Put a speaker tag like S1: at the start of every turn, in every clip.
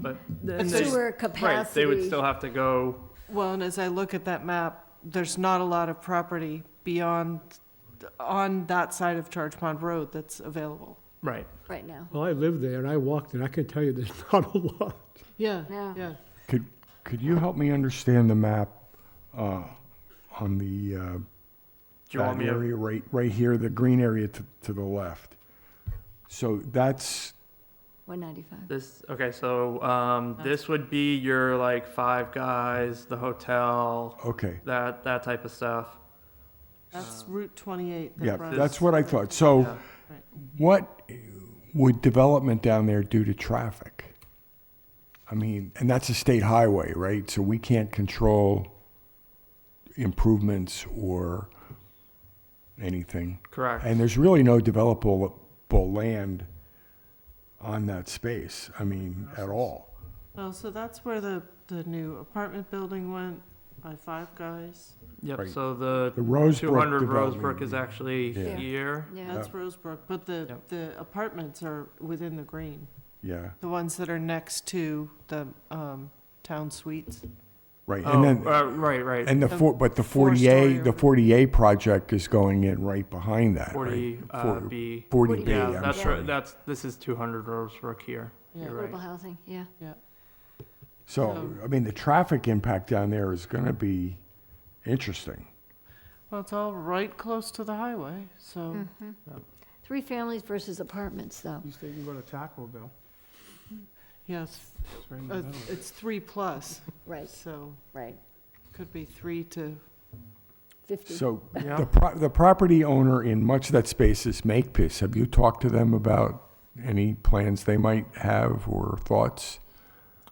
S1: but.
S2: But
S1: they-
S2: sewer
S1: Right, they would
S2: capacity.
S1: still have to go,
S3: Well, and as I look at that map, there's not a lot of property beyond, on that side of Charge Pond Road that's available.
S1: right.
S2: right now.
S4: Well, I lived there and I walked it. I can tell you there's not a lot.
S3: Yeah,
S2: Yeah.
S3: yeah.
S5: Could, could you help me understand the map uh, on the, uh,
S1: Do you want
S5: that
S1: me to,
S5: area right, right here, the green area to, to the left? So that's,
S2: 195.
S1: this, okay, so, um, this would be your like Five Guys, the hotel,
S5: okay,
S1: that, that type of stuff.
S3: That's Route 28
S5: yeah,
S3: that runs.
S5: that's what I thought. So
S1: Yeah.
S5: what would development down there do to traffic? I mean, and that's a state highway, right? So we can't control improvements or anything.
S1: Correct.
S5: And there's really no developable land on that space, I mean, at all.
S3: Well, Oh, so that's where the, the new apartment building went by Five Guys.
S1: Yep,
S5: Right.
S1: so the
S5: The Rosebrook
S1: two hundred Rosebrook
S5: development,
S1: is
S5: yeah.
S1: actually
S5: Yeah.
S1: here.
S2: Yeah.
S3: That's Rosebrook, but the,
S1: Yep.
S3: the apartments are within the green,
S5: Yeah,
S3: the ones that are next to the um, town suites.
S5: right.
S1: Oh,
S5: And then,
S1: uh, right, right,
S5: and the
S3: the
S5: four, but the
S3: four-story
S5: 40A, the
S3: or-
S5: 40A project is going in right behind that, right?
S1: forty, uh,
S5: Four-
S1: B.
S5: 40B,
S1: Yeah,
S5: I'm
S1: that's,
S5: sorry.
S1: right. that's, this is two hundred Rosebrook here.
S3: Yeah.
S1: You're
S2: Affordable
S1: right.
S2: housing, yeah.
S5: So,
S3: Oh.
S5: I mean, the traffic impact down there is going to be interesting.
S3: Well, it's all right close to the highway,
S2: Oh. Hmm.
S3: so,
S2: Mm-hmm. Three families versus apartments, though.
S6: You say you can go to Taco Bell.
S3: yes,
S6: It's right in
S5: Hmm.
S6: the
S3: uh,
S6: middle.
S3: it's three plus,
S2: Right,
S3: so
S2: right.
S3: could be three to
S2: 50.
S5: So
S1: Yeah.
S5: the, pro- the property owner in much of that space is Makepeace. Have you talked to them about any plans they might have or thoughts?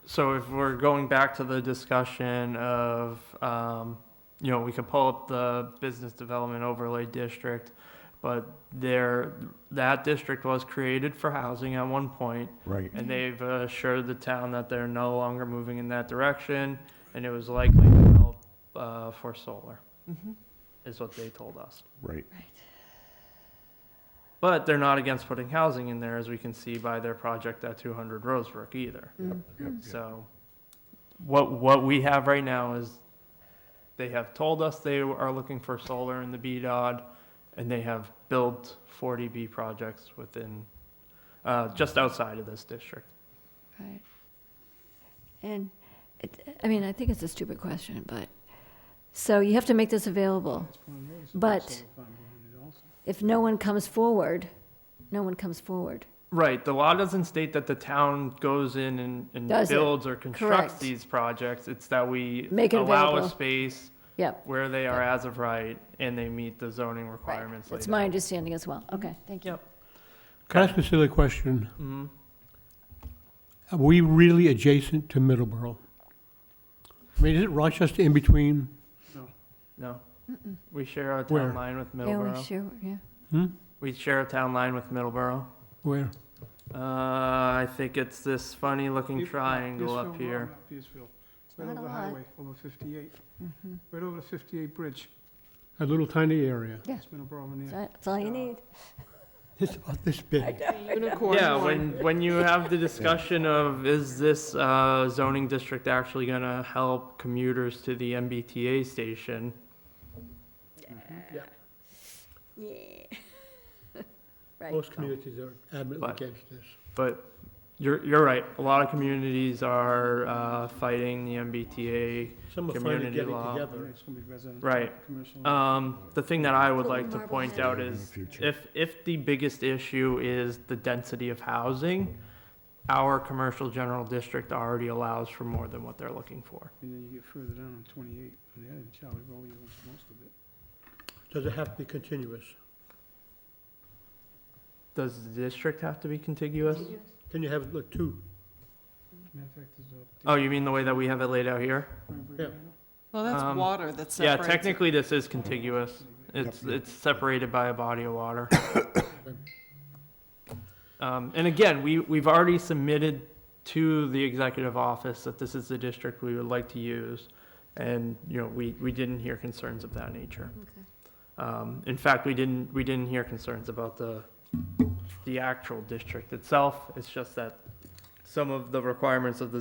S1: So if we're going back to the discussion of, um, you know, we could pull up the business development overlay district, but there, that district was created for housing at one point,
S5: Right.
S1: and they've assured the town that they're no longer moving in that direction, and it was likely developed, uh, for solar,
S3: Mhm.
S1: is what they told us.
S5: Right.
S1: But they're not against putting housing in there, as we can see by their project at two hundred Rosebrook either. So what, what we have right now is they have told us they are looking for solar in the BDOD and they have built 40B projects within, uh, just outside of this district.
S2: Right. And, it- I mean, I think it's a stupid question, but, so you have to make this available.
S6: That's one of those.
S2: But-
S6: Solar farm behind it also.
S2: If no one comes forward, no one comes forward.
S1: Right, the law doesn't state that the town goes in and, and
S2: Does it?
S1: builds or constructs
S2: Correct.
S1: these projects. It's that we
S2: Make it
S1: allow a
S2: available.
S1: space
S2: Yep.
S1: where they are as of right and they meet the zoning
S2: right.
S1: requirements
S2: That's
S1: later.
S2: my understanding as well. Okay, thank you.
S1: Yep.
S4: Can I ask a silly question?
S1: Mhm.
S4: Are we really adjacent to Middleborough? I mean, is it Rochester in between?
S1: No, we share our
S4: Where?
S1: town line with
S2: Yeah,
S1: Middleborough.
S2: we sure, yeah.
S4: Hmm?
S1: We share a town line with Middleborough.
S4: Where?
S1: Uh, I think it's this funny looking
S6: Peace-
S1: triangle
S6: Peaceville
S1: up
S6: Road,
S1: here.
S6: not Peaceville. Right
S2: not
S6: over
S2: a
S6: the
S2: lot.
S6: highway, over 58,
S2: Mhm.
S6: right over the 58 bridge.
S4: A little tiny area.
S2: Yeah.
S6: It's Middleborough in there.
S2: So That's all you
S6: Yeah.
S2: need.
S4: It's about this big.
S3: unicorn
S1: Yeah,
S3: one.
S1: when, when you have the discussion of is this, uh, zoning district actually gonna help commuters to the MBTA station?
S2: Yeah. Right.
S4: Most communities are adamantly
S1: But-
S4: against this.
S1: But you're, you're right, a lot of communities are, uh, fighting the MBTA.
S4: Some are finally
S1: Community
S4: getting
S1: law.
S4: together.
S6: It's gonna be residential,
S1: Right.
S6: commercial.
S1: Um, the thing that I would
S2: Put
S1: like to
S2: Marblehead
S1: point
S2: in.
S1: out
S5: In the
S1: is
S5: future.
S1: if, if the biggest issue is the density of housing, our commercial general district already allows for more than what they're looking for.
S6: And then you get further down on 28, and then Charlie Rowley owns most of it.
S4: Does it have to be continuous?
S1: Does the district have to be contiguous?
S4: Can you have, like, two?
S6: Matter of fact, there's a-
S1: Oh, you mean the way that we have it laid out here?
S4: Yeah.
S3: Well, that's
S1: Um,
S3: water that's
S1: Yeah,
S3: separated.
S1: technically this is contiguous. It's,
S5: Yep.
S1: it's separated by a body of water. Um, and again, we, we've already submitted to the executive office that this is the district we would like to use. And, you know, we, we didn't hear concerns of that nature.
S2: Okay.
S1: Um, in fact, we didn't, we didn't hear concerns about the, the actual district itself. It's just that some of the requirements of the